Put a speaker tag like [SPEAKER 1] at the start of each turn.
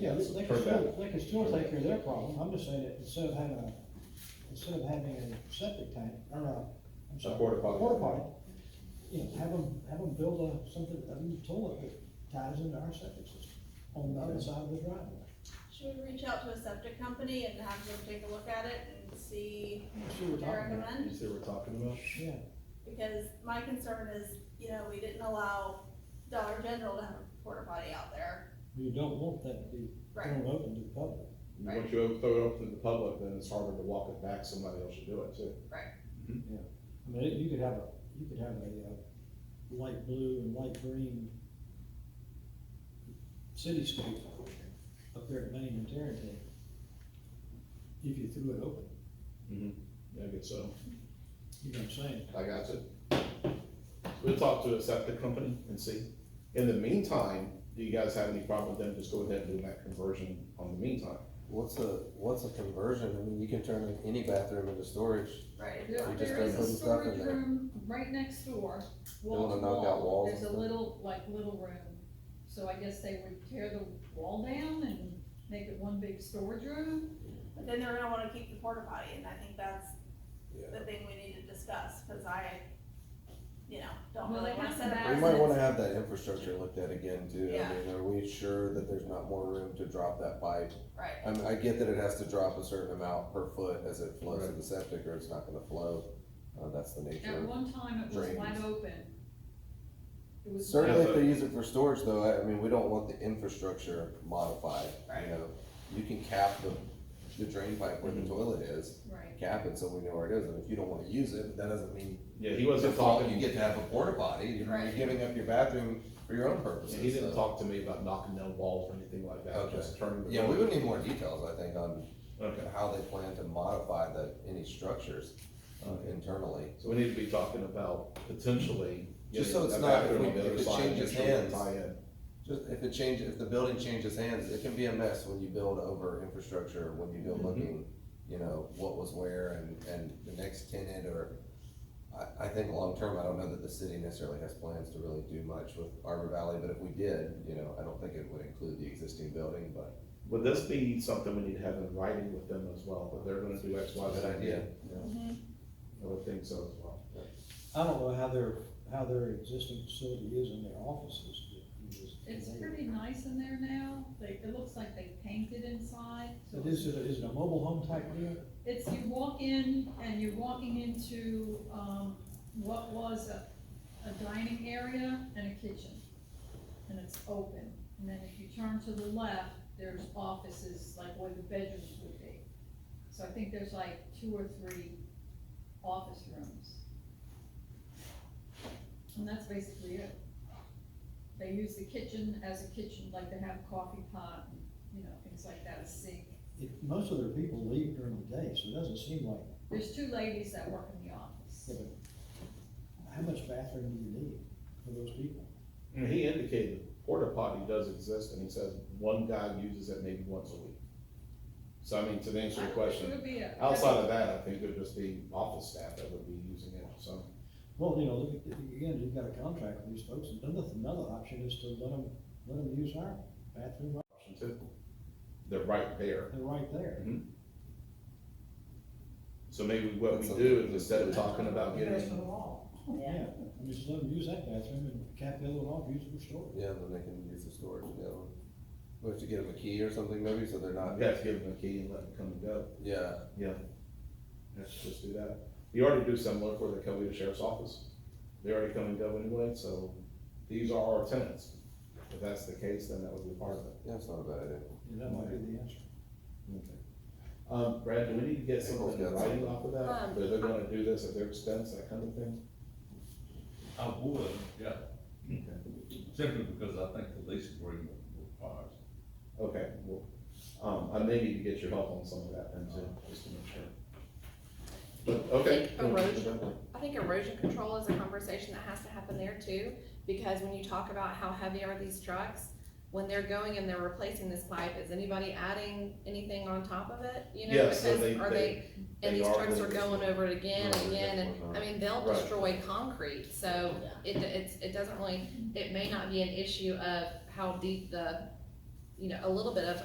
[SPEAKER 1] Yeah, they they
[SPEAKER 2] per
[SPEAKER 1] can still,
[SPEAKER 2] bed.
[SPEAKER 1] they can still take care of their problem, I'm just saying that instead of having a, instead of having a septic tank, or a, I'm sorry.
[SPEAKER 2] Porta potty.
[SPEAKER 1] Porta potty, you know, have them, have them build a, something, a new toilet that ties into our septic system on the other side of the driveway.
[SPEAKER 3] Should we reach out to a septic company and have them take a look at it and see
[SPEAKER 1] You see what
[SPEAKER 3] what they
[SPEAKER 1] I'm talking about?
[SPEAKER 3] recommend?
[SPEAKER 2] You see what we're talking about?
[SPEAKER 1] Yeah,
[SPEAKER 3] Because my concern is, you know, we didn't allow Dollar General to have a porta potty out there.
[SPEAKER 1] you don't want that to be
[SPEAKER 3] Right,
[SPEAKER 4] Mm.
[SPEAKER 1] thrown open to the public.
[SPEAKER 3] Right.
[SPEAKER 2] Once you throw it open to the public, then it's harder to walk it back, somebody else should do it too.
[SPEAKER 1] I mean, it- you could have a, you could have a, uh, light blue and light green cityscape up there at Main and Tarrentine, if you threw it open,
[SPEAKER 2] Mm-hmm.
[SPEAKER 4] Mm-hmm.
[SPEAKER 2] Yeah, I guess so.
[SPEAKER 1] you know what I'm saying?
[SPEAKER 2] I got you. We'll talk to a septic company and see. In the meantime, do you guys have any problem with them just go ahead and doing that conversion on the meantime?
[SPEAKER 4] What's a, what's a conversion? I mean, you can turn any bathroom into storage.
[SPEAKER 3] right.
[SPEAKER 5] There,
[SPEAKER 4] We just
[SPEAKER 5] there
[SPEAKER 4] don't
[SPEAKER 5] is
[SPEAKER 4] put
[SPEAKER 5] a
[SPEAKER 4] the stuff in
[SPEAKER 5] storage
[SPEAKER 4] there.
[SPEAKER 5] room right next door, wall
[SPEAKER 4] wanna
[SPEAKER 5] to
[SPEAKER 4] knock out
[SPEAKER 5] wall,
[SPEAKER 4] walls
[SPEAKER 5] there's a
[SPEAKER 4] and stuff.
[SPEAKER 5] little, like, little room. So I guess they would tear the wall down and make it one big storage room.
[SPEAKER 3] But then they're gonna wanna keep the porta potty, and I think that's
[SPEAKER 4] Yeah.
[SPEAKER 3] the thing we need to discuss, cause I, you know, don't
[SPEAKER 5] Well,
[SPEAKER 3] really
[SPEAKER 5] they
[SPEAKER 3] wanna
[SPEAKER 5] have
[SPEAKER 3] set
[SPEAKER 5] the
[SPEAKER 3] up.
[SPEAKER 4] We
[SPEAKER 5] As
[SPEAKER 4] might
[SPEAKER 5] it
[SPEAKER 4] wanna
[SPEAKER 5] is.
[SPEAKER 4] have that infrastructure looked at again too.
[SPEAKER 3] Yeah.
[SPEAKER 4] I mean, are we sure that there's not more room to drop that pipe?
[SPEAKER 3] Right,
[SPEAKER 4] I mean, I get that it has to drop a certain amount per foot as it flows to the septic or it's not gonna flow. Uh, that's the
[SPEAKER 5] At
[SPEAKER 4] nature.
[SPEAKER 5] one time, it was
[SPEAKER 4] Drains.
[SPEAKER 5] wide open. It was.
[SPEAKER 4] Certainly if they use it for storage though, I, I mean, we don't want the infrastructure modified,
[SPEAKER 3] Right.
[SPEAKER 4] you know? You can cap the, the drain pipe where the
[SPEAKER 2] Mhm.
[SPEAKER 4] toilet is,
[SPEAKER 5] Right,
[SPEAKER 4] cap it so we know where it is. And if you don't wanna use it, that doesn't mean
[SPEAKER 2] Yeah, he
[SPEAKER 4] It's your
[SPEAKER 2] wasn't
[SPEAKER 4] fault you
[SPEAKER 2] talking,
[SPEAKER 4] get to have a porta potty, you're you're
[SPEAKER 5] Right.
[SPEAKER 4] giving up your bathroom for your own
[SPEAKER 2] yeah,
[SPEAKER 4] purposes.
[SPEAKER 2] he didn't
[SPEAKER 4] so-
[SPEAKER 2] talk to me about knocking down walls or anything like that,
[SPEAKER 4] Okay.
[SPEAKER 2] just turning. the-
[SPEAKER 4] Yeah, we would need more details, I think, on
[SPEAKER 2] Okay,
[SPEAKER 4] how they plan to modify the, any structures uh,
[SPEAKER 2] Okay.
[SPEAKER 4] internally.
[SPEAKER 2] so we need to be talking about potentially.
[SPEAKER 4] Just so
[SPEAKER 2] getting
[SPEAKER 4] it's
[SPEAKER 2] a
[SPEAKER 4] not-
[SPEAKER 2] bathroom on the
[SPEAKER 4] if
[SPEAKER 2] other
[SPEAKER 4] it
[SPEAKER 2] side and
[SPEAKER 4] changes
[SPEAKER 2] just trying to
[SPEAKER 4] hands.
[SPEAKER 2] tie in.
[SPEAKER 4] Just if it changes, if the building changes hands, it can be a mess when you build over infrastructure, when you go
[SPEAKER 2] Mhm.
[SPEAKER 4] looking, you know, what was where and, and the next tenant or. I, I think long-term, I don't know that the city necessarily has plans to really do much with Arbor Valley, but if we did, you know, I don't think it would include the existing building, but.
[SPEAKER 2] Would this be something we need to have in writing with them as well, that they're gonna do X, Y, Z?
[SPEAKER 4] Good idea.
[SPEAKER 5] Mm-hmm.
[SPEAKER 2] Yeah. I would think so as well.
[SPEAKER 1] I don't know how their, how their existing facility is in their offices, but it is.
[SPEAKER 5] it's pretty nice in there now, they, it looks like they painted inside. so
[SPEAKER 1] It is, is it a mobile home type deal?
[SPEAKER 5] It's, you walk in and you're walking into, um, what was a, a dining area and a kitchen. And it's open, and then if you turn to the left, there's offices, like where the bedrooms would be. So I think there's like two or three office rooms. And that's basically it. They use the kitchen as a kitchen, like they have a coffee pot, and, you know, things like that, a sink.
[SPEAKER 1] It, most of their people leave during the day, so it doesn't seem like,
[SPEAKER 5] There's two ladies that work in the office.
[SPEAKER 1] yeah, but how much bathroom do you need for those people?
[SPEAKER 2] And he indicated porta potty does exist, and he says one guy uses it maybe once a week. So I mean, to answer your question, outside of that, I think it would just be office staff that would be using it, so.
[SPEAKER 1] Well, you know, look at- again, you've got a contract with these folks, and another, another option is to let them, let them use our bathroom, right-
[SPEAKER 2] option two. They're right there,
[SPEAKER 1] they're right there.
[SPEAKER 2] so maybe what we
[SPEAKER 4] That's a-
[SPEAKER 2] do is instead of talking about
[SPEAKER 1] That's the
[SPEAKER 2] getting,
[SPEAKER 1] law. Yeah, I mean, just let them use that bathroom, and cap the other one off, use it for storage.
[SPEAKER 4] Yeah, then they can use the storage, you know. We have to get them a key or something maybe, so they're not,
[SPEAKER 2] you uh, have to give them a key and let them come and go.
[SPEAKER 4] yeah,
[SPEAKER 2] Let's just do that. You already do similar for the Covina Sheriff's Office. They already come and go anyway, so these are our tenants. If that's the case, then that would be part of it.
[SPEAKER 4] yeah, it's not a bad idea.
[SPEAKER 1] Yeah, that might be the answer.
[SPEAKER 2] Okay. Um, Brad, do we need to get something in writing off of that?
[SPEAKER 3] Um,
[SPEAKER 2] That they're gonna do this at their expense, that kind of thing?
[SPEAKER 6] I would, yeah,
[SPEAKER 2] Okay.
[SPEAKER 6] simply because I think the lease agreement requires.
[SPEAKER 2] Okay, well, um, I may need to get your help on some of that then too, just to make sure. But, okay.
[SPEAKER 7] Erosion. I think erosion control is a conversation that has to happen there too, because when you talk about how heavy are these trucks, when they're going and they're replacing this pipe, is anybody adding anything on top of it? You know,
[SPEAKER 2] Yeah, so
[SPEAKER 7] because
[SPEAKER 2] they-
[SPEAKER 7] are they, and
[SPEAKER 2] they
[SPEAKER 7] these
[SPEAKER 2] are
[SPEAKER 7] trucks are
[SPEAKER 2] gonna-
[SPEAKER 7] going over it again
[SPEAKER 4] Right,
[SPEAKER 7] and again,
[SPEAKER 4] definitely
[SPEAKER 7] and,
[SPEAKER 4] not.
[SPEAKER 7] I mean, they'll
[SPEAKER 2] Right.
[SPEAKER 7] destroy concrete, so it, it's, it doesn't really, it may not be an issue of how deep the, you know, a little bit of